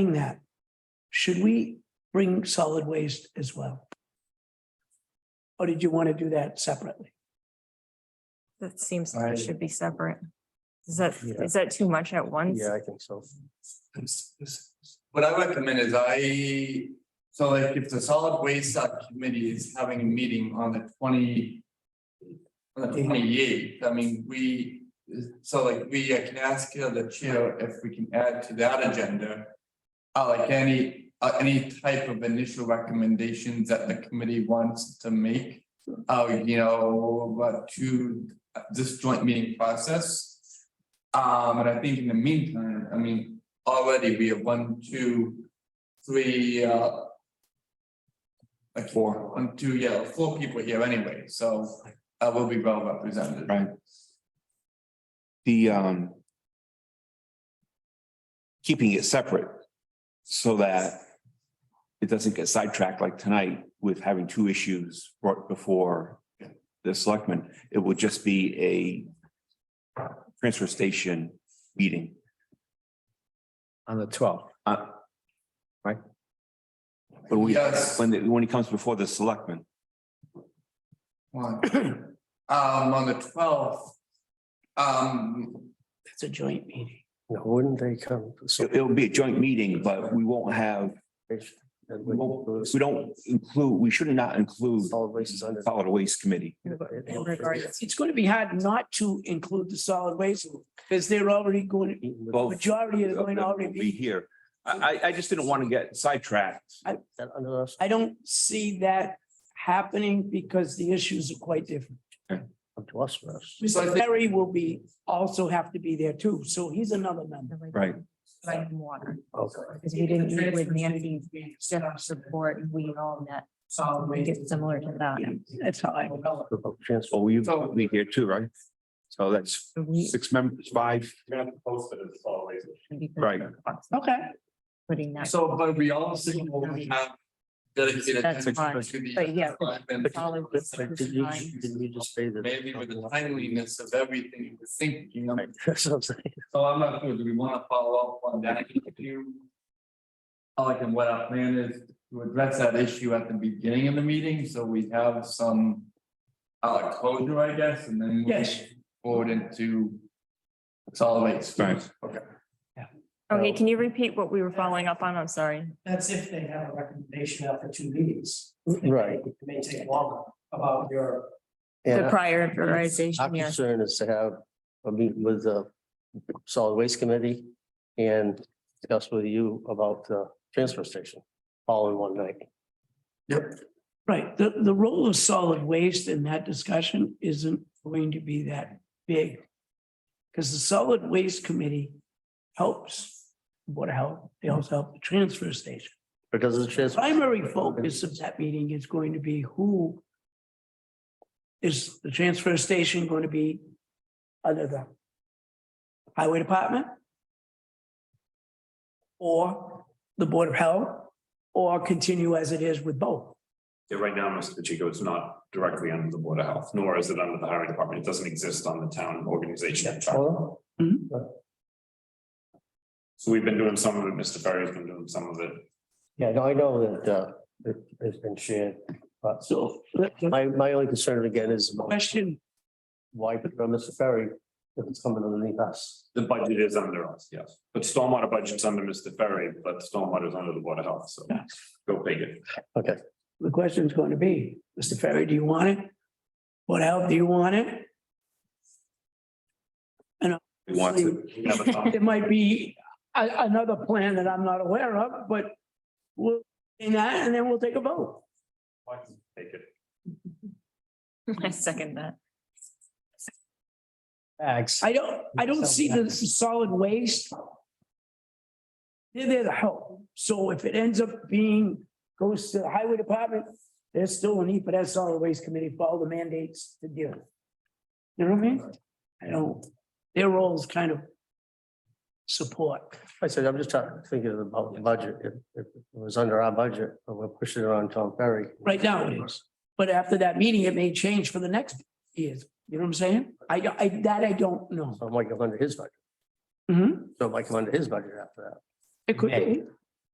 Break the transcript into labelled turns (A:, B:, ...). A: Saying that, should we bring solid waste as well? Or did you want to do that separately?
B: That seems,
C: I-
B: that should be separate. Is that,
C: Yeah.
B: is that too much at once?
C: Yeah, I think so.
D: What I recommend is I, so like if the solid waste subcommittee is having a meeting on the twenty. On the twenty eighth, I mean, we, so like we I can ask uh, the chair if we can add to that agenda. Uh, like any, uh, any type of initial recommendations that the committee wants to make. Uh, you know, but to uh, this joint meeting process. Um, and I think in the meantime, I mean, already we have one, two, three, uh. Like four, one, two, yeah, four people here anyway, so I will be well represented.
E: Right. the um. Keeping it separate so that it doesn't get sidetracked like tonight with having two issues brought before the selectmen. It would just be a transfer station meeting.
C: On the twelfth.
E: Uh, Right? But we,
D: Yes.
E: when, it- when it comes before the selectmen,
D: One, um, on the twelfth, um,
A: That's a joint meeting.
C: Wouldn't they come? So
E: it- it'll be a joint meeting, but we won't have, we won't- we don't include, we should not include
C: Solid waste is under.
E: solid waste committee.
B: In regards,
A: It's going to be hard not to include the solid waste because they're already going,
E: Well,
A: majority are
E: of
A: going to
E: them
A: already
E: will Be
A: be.
E: here. I, I, I just didn't want to get sidetracked.
C: That under us.
A: I don't see that happening because the issues are quite different.
C: Up to us first.
D: So
A: Mr.
D: I think-
A: Ferry will be, also have to be there too, so he's another member.
E: Right.
B: Like water,
C: Okay.
B: because we didn't meet with Nancy, Jeff support, and we all met,
A: Solid
B: we get similar to that.
A: Yeah, That's how I.
C: About transfer.
E: Oh, you
D: So-
E: be here too, right? So that's
B: So we-
E: six members, five,
B: because
E: Right.
B: of us
A: Okay,
B: Putting that.
D: so, but we all signal we have. Dedicated.
B: That's
D: attention
B: fine,
D: to the-
B: but yeah,
D: and
B: but solid waste
C: Did
B: is
C: you,
B: fine.
C: did we just say that?
D: Maybe with the timeliness of everything, we're thinking, I'm
C: That's what I'm saying.
D: So I'm not sure, do we wanna follow up on that issue? I Like, and what our plan is to address that issue at the beginning of the meeting, so we have some. Uh, closure, I guess, and then. move
A: Yes.
D: Forward into. Solid waste.
E: Right.
D: Okay.
B: Okay, can you repeat what we were following up on? I'm sorry.
F: That's if they have a recommendation after two meetings.
C: Right.
F: It may take longer about your,
B: The
C: And
B: prior
C: our
B: prioritization, yeah.
C: concern is to have a meeting with the solid waste committee and discuss with you about the transfer station all in one night.
A: right. The, the role of solid waste in that discussion isn't going to be that big. Because the solid waste committee helps Board of Health, they also help the transfer station.
C: Or does the transfer?
A: Primary focus of that meeting is going to be who is the transfer station going to be other than highway department? Or the Board of Health, or continue as it is with both?
G: Yeah, right now, Mr. Pacheco, it's not directly under the Board of Health, nor is it under the Highway Department. It doesn't exist on the town organization. chart.
C: Well,
G: So we've been doing some of it, Mr. Ferry's been doing some of it.
C: Yeah, no, I know that, uh, it, it's been shared, but
A: So the the
C: my, my only concern again is about
A: question,
C: why put it on Mr. Ferry if it's coming underneath us?
G: The budget is under us, yes. But stormwater budget's under Mr. Ferry, but stormwater is under the Board of Health, so go figure.
A: the question is going to be, Mr. Ferry, do you want it? What help do you want it?
E: we want to have a
A: There might be a- another plan that I'm not aware of, but we'll, in that, and then we'll take a vote.
G: Take it.
B: I second that.
C: Thanks.
A: I don't, I don't see the solid waste. They're there to help. So if it ends up being, goes to the highway department, there's still a need for that solid waste committee for all the mandates to deal. with. You know what I mean? I don't, their role is kind of support.
C: I said, I'm just trying, thinking about the budget. If, if it was under our budget, but we're pushing it on Tom Ferry.
A: Right now it is. But after that meeting, it may change for the next years. You know what I'm saying? I, I, that I don't know.
C: So it might come under his budget.
A: Mhm.
C: So it might come under his budget after that.
A: It could be.